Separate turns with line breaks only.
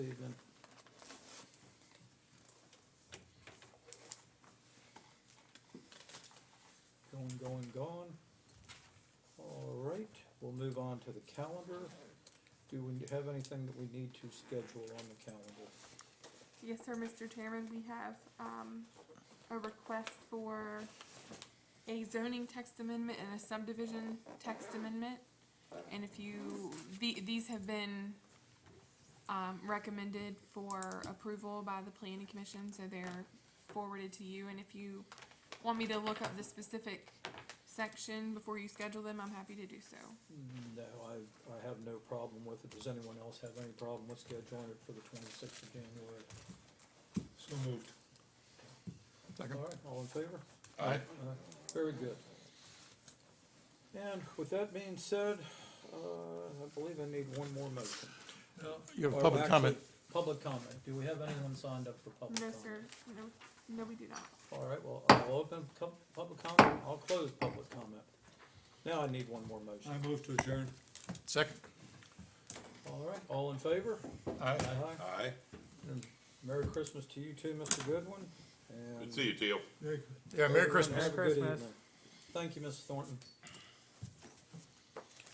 Evening. Going, going, gone. All right, we'll move on to the calendar. Do we have anything that we need to schedule on the calendar?
Yes, sir, Mr. Chairman, we have, um, a request for a zoning text amendment and a subdivision text amendment. And if you, the, these have been, um, recommended for approval by the planning commission, so they're forwarded to you. And if you want me to look up the specific section before you schedule them, I'm happy to do so.
No, I, I have no problem with it. Does anyone else have any problem with scheduling it for the twenty-sixth of January?
So moved. Second.
All right, all in favor?
Aye.
Uh, Very good. And with that being said, uh, I believe I need one more motion.
You have
Or
a public
actually,
comment.
Public comment. Do we have anyone signed up for public
No,
comment?
sir, no, no, we do not.
All right, well, I'll open com- public comment, I'll close public comment. Now I need one more motion.
I move to adjourn. Second.
All right, all in favor?
Aye.
Aye.
Aye.
Merry Christmas to you too, Mr. Goodwin. and
Good to see you, Teal.
Yeah, Merry
everyone
Christmas.
have a good evening. Thank you, Ms. Thornton.